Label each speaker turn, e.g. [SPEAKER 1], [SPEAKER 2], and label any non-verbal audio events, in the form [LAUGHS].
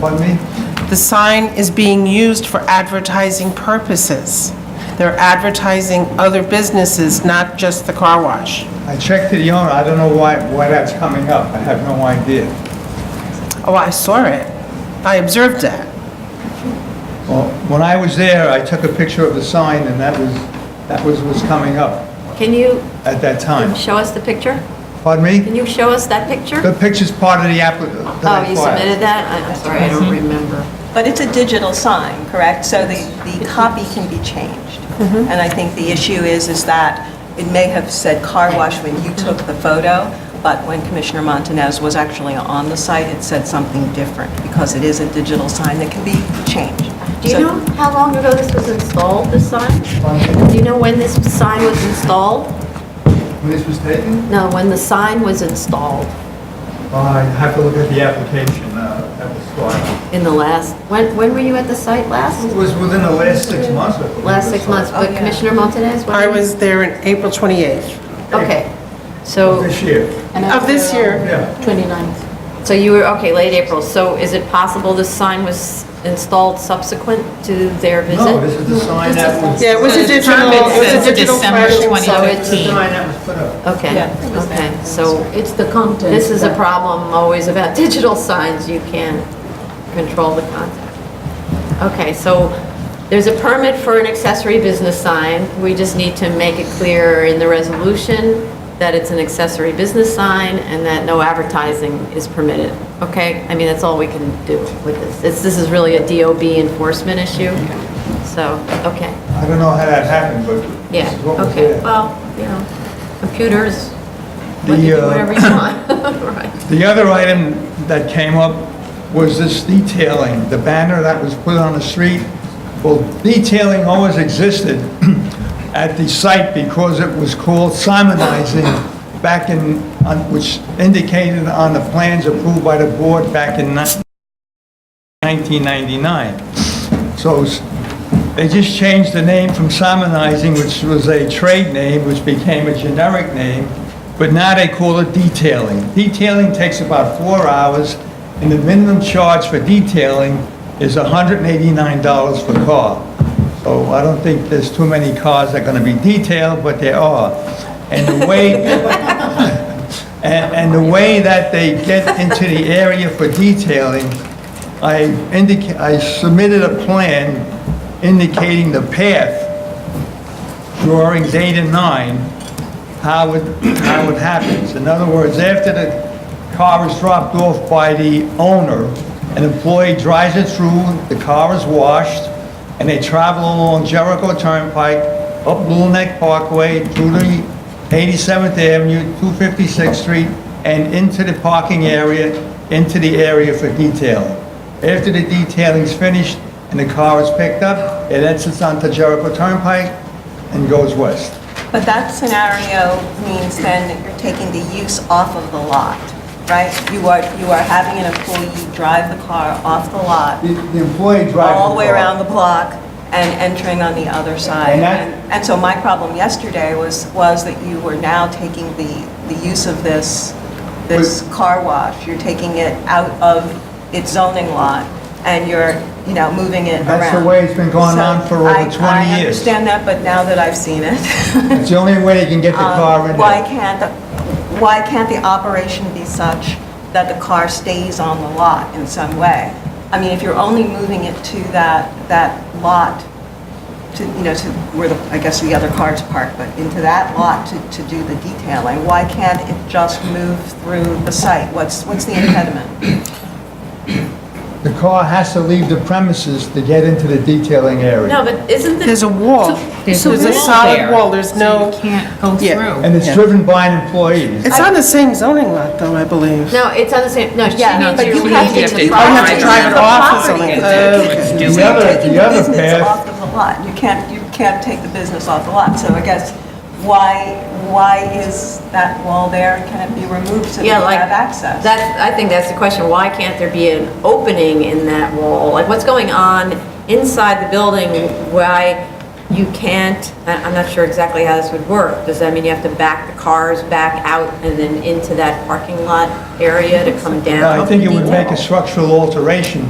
[SPEAKER 1] pardon me?
[SPEAKER 2] The sign is being used for advertising purposes. They're advertising other businesses, not just the car wash.
[SPEAKER 1] I checked to the owner, I don't know why, why that's coming up, I have no idea.
[SPEAKER 2] Oh, I saw it. I observed that.
[SPEAKER 1] Well, when I was there, I took a picture of the sign, and that was, that was what's coming up
[SPEAKER 3] Can you
[SPEAKER 1] at that time.
[SPEAKER 3] show us the picture?
[SPEAKER 1] Pardon me?
[SPEAKER 3] Can you show us that picture?
[SPEAKER 1] The picture's part of the applicant.
[SPEAKER 3] Oh, you submitted that? I- I'm sorry, I
[SPEAKER 2] Mm-hmm.
[SPEAKER 3] don't remember.
[SPEAKER 4] But it's a digital sign, correct? So the, the copy can be changed.
[SPEAKER 3] Mm-hmm.
[SPEAKER 4] And I think the issue is, is that it may have said car wash when you
[SPEAKER 3] Mm-hmm.
[SPEAKER 4] took the photo, but when Commissioner Montanez was actually on the site, it said something different because it is a digital sign that can be changed.
[SPEAKER 3] Do you
[SPEAKER 4] So-
[SPEAKER 3] know how long ago this was installed, this sign? Do you know when this sign was installed?
[SPEAKER 1] When this was taken?
[SPEAKER 3] No, when the sign was installed
[SPEAKER 1] I have to look at the application uh, that was filed.
[SPEAKER 3] in the last, when, when were you at the site last?
[SPEAKER 1] It was within the last six months, I believe.
[SPEAKER 3] Last six months,
[SPEAKER 4] Oh,
[SPEAKER 3] but
[SPEAKER 4] yeah.
[SPEAKER 3] Commissioner Montanez? when-
[SPEAKER 2] I was there in April 28th
[SPEAKER 3] Okay, so.
[SPEAKER 1] This year,
[SPEAKER 2] of this year.
[SPEAKER 1] yeah.
[SPEAKER 3] 29th. So you were, okay, late April, so is it possible this sign was installed subsequent to their visit?
[SPEAKER 1] No, this is the sign that was,
[SPEAKER 2] Yeah, it was a digital, it was a digital
[SPEAKER 5] December
[SPEAKER 2] flashing sign.
[SPEAKER 5] 20th.
[SPEAKER 3] So
[SPEAKER 1] this is the
[SPEAKER 3] it's,
[SPEAKER 1] sign that was put up.
[SPEAKER 3] okay,
[SPEAKER 4] Yeah, it was
[SPEAKER 3] okay,
[SPEAKER 4] there.
[SPEAKER 3] so
[SPEAKER 6] It's the content.
[SPEAKER 3] this is a
[SPEAKER 6] that-
[SPEAKER 3] problem always about [LAUGHS] digital signs, you can't control the content. Okay, so there's a permit for an accessory business sign, we just need to make it clear in the resolution that it's an accessory business sign and that no advertising is permitted, okay? I mean, that's all we can do with this, It's- this is really a DOB enforcement issue, so, okay,
[SPEAKER 1] I don't know how that happened, but
[SPEAKER 3] yeah,
[SPEAKER 1] this is what was
[SPEAKER 3] okay,
[SPEAKER 1] there.
[SPEAKER 3] well, you know, computers,
[SPEAKER 1] The,
[SPEAKER 3] let you do
[SPEAKER 1] uh,
[SPEAKER 3] whatever you want, [LAUGHS] right?
[SPEAKER 1] The other item that came up was this detailing, the banner that was put on the street. Well, detailing always existed [CLEARS THROAT] at the site because it was called simonizing back in, on- which indicated on the plans approved by the board back in ni- 1999. So s- they just changed the name from Simonizing, which was a trade name, which became a generic name, but now they call it detailing. Detailing takes about four hours, and the minimum charge for detailing is $189 per car. So I don't think there's too many cars that are going to be detailed, but there are. And the way, and, and the way that they get into the area for detailing, I indica, I submitted a plan indicating the path, drawing data nine, how it, how it happens. In other words, after the car is dropped off by the owner, an employee drives it through, the car is washed, and they travel along Jericho Turnpike, up Little Neck Parkway, through the 87th Avenue, 256th Street, and into the parking area, into the area for detailing. After the detailing's finished and the car is picked up, it exits onto Jericho Turnpike and goes west.
[SPEAKER 4] But that scenario means then that you're taking the use off of the lot, right? You are, you are having an employee drive the car off the lot,
[SPEAKER 1] The the employee drives the car.
[SPEAKER 4] all the way around the block and entering on the other side.
[SPEAKER 1] And that-
[SPEAKER 4] And and so my problem yesterday was, was that you were now taking the, the use of this, this car wash. You're taking it out of its zoning lot and you're, you know, moving it around.
[SPEAKER 1] That's the way it's been going on for over
[SPEAKER 4] So I-
[SPEAKER 1] 20
[SPEAKER 4] I
[SPEAKER 1] years.
[SPEAKER 4] understand that, but now that I've seen it,
[SPEAKER 1] [LAUGHS]
[SPEAKER 4] [LAUGHS]
[SPEAKER 1] It's the only way they can get the car in
[SPEAKER 4] Um, Why
[SPEAKER 1] there.
[SPEAKER 4] can't, the- why can't the operation be such that the car stays on the lot in some way? I mean, if you're only moving it to that, that lot, to, you know, to where the, I guess the other car's parked, but into that lot to, to do the detailing, why can't it just move through the site? What's, what's the impediment?
[SPEAKER 1] The car has to leave the premises to get into the detailing area.
[SPEAKER 3] No, but isn't the...
[SPEAKER 2] There's a wall.
[SPEAKER 5] There's
[SPEAKER 2] There's a
[SPEAKER 5] wall
[SPEAKER 2] solid
[SPEAKER 5] there,
[SPEAKER 2] wall, there's
[SPEAKER 5] so
[SPEAKER 2] no,
[SPEAKER 5] you can't go
[SPEAKER 2] Yeah.
[SPEAKER 5] through.
[SPEAKER 1] And it's driven by an employee.
[SPEAKER 2] it's on the same zoning lot, though, I believe.
[SPEAKER 3] No, it's on the same, no, she
[SPEAKER 4] Yeah,
[SPEAKER 3] means
[SPEAKER 5] but
[SPEAKER 3] you're
[SPEAKER 5] you have to
[SPEAKER 3] leaving the
[SPEAKER 5] do-
[SPEAKER 2] Oh, you have to
[SPEAKER 5] Right.
[SPEAKER 2] drive it
[SPEAKER 4] The
[SPEAKER 2] off or
[SPEAKER 4] property
[SPEAKER 2] something.
[SPEAKER 4] is-
[SPEAKER 2] Oh, okay.
[SPEAKER 5] It's
[SPEAKER 1] The
[SPEAKER 5] doing-
[SPEAKER 1] other-
[SPEAKER 4] You're taking the
[SPEAKER 1] other
[SPEAKER 4] business
[SPEAKER 1] path-
[SPEAKER 4] off of the lot. You can't, you can't take the business off the lot. So I guess, why, why is that wall there? Can it be removed so that you
[SPEAKER 3] Yeah, like,
[SPEAKER 4] have access?
[SPEAKER 3] that, I think that's the question, why can't there be an opening in that wall? Like, what's going on inside the building, why you can't, I- I'm not sure exactly how this would work. Does that mean you have to back the cars back out and then into that parking lot area to come down?
[SPEAKER 1] I think it would make a structural alteration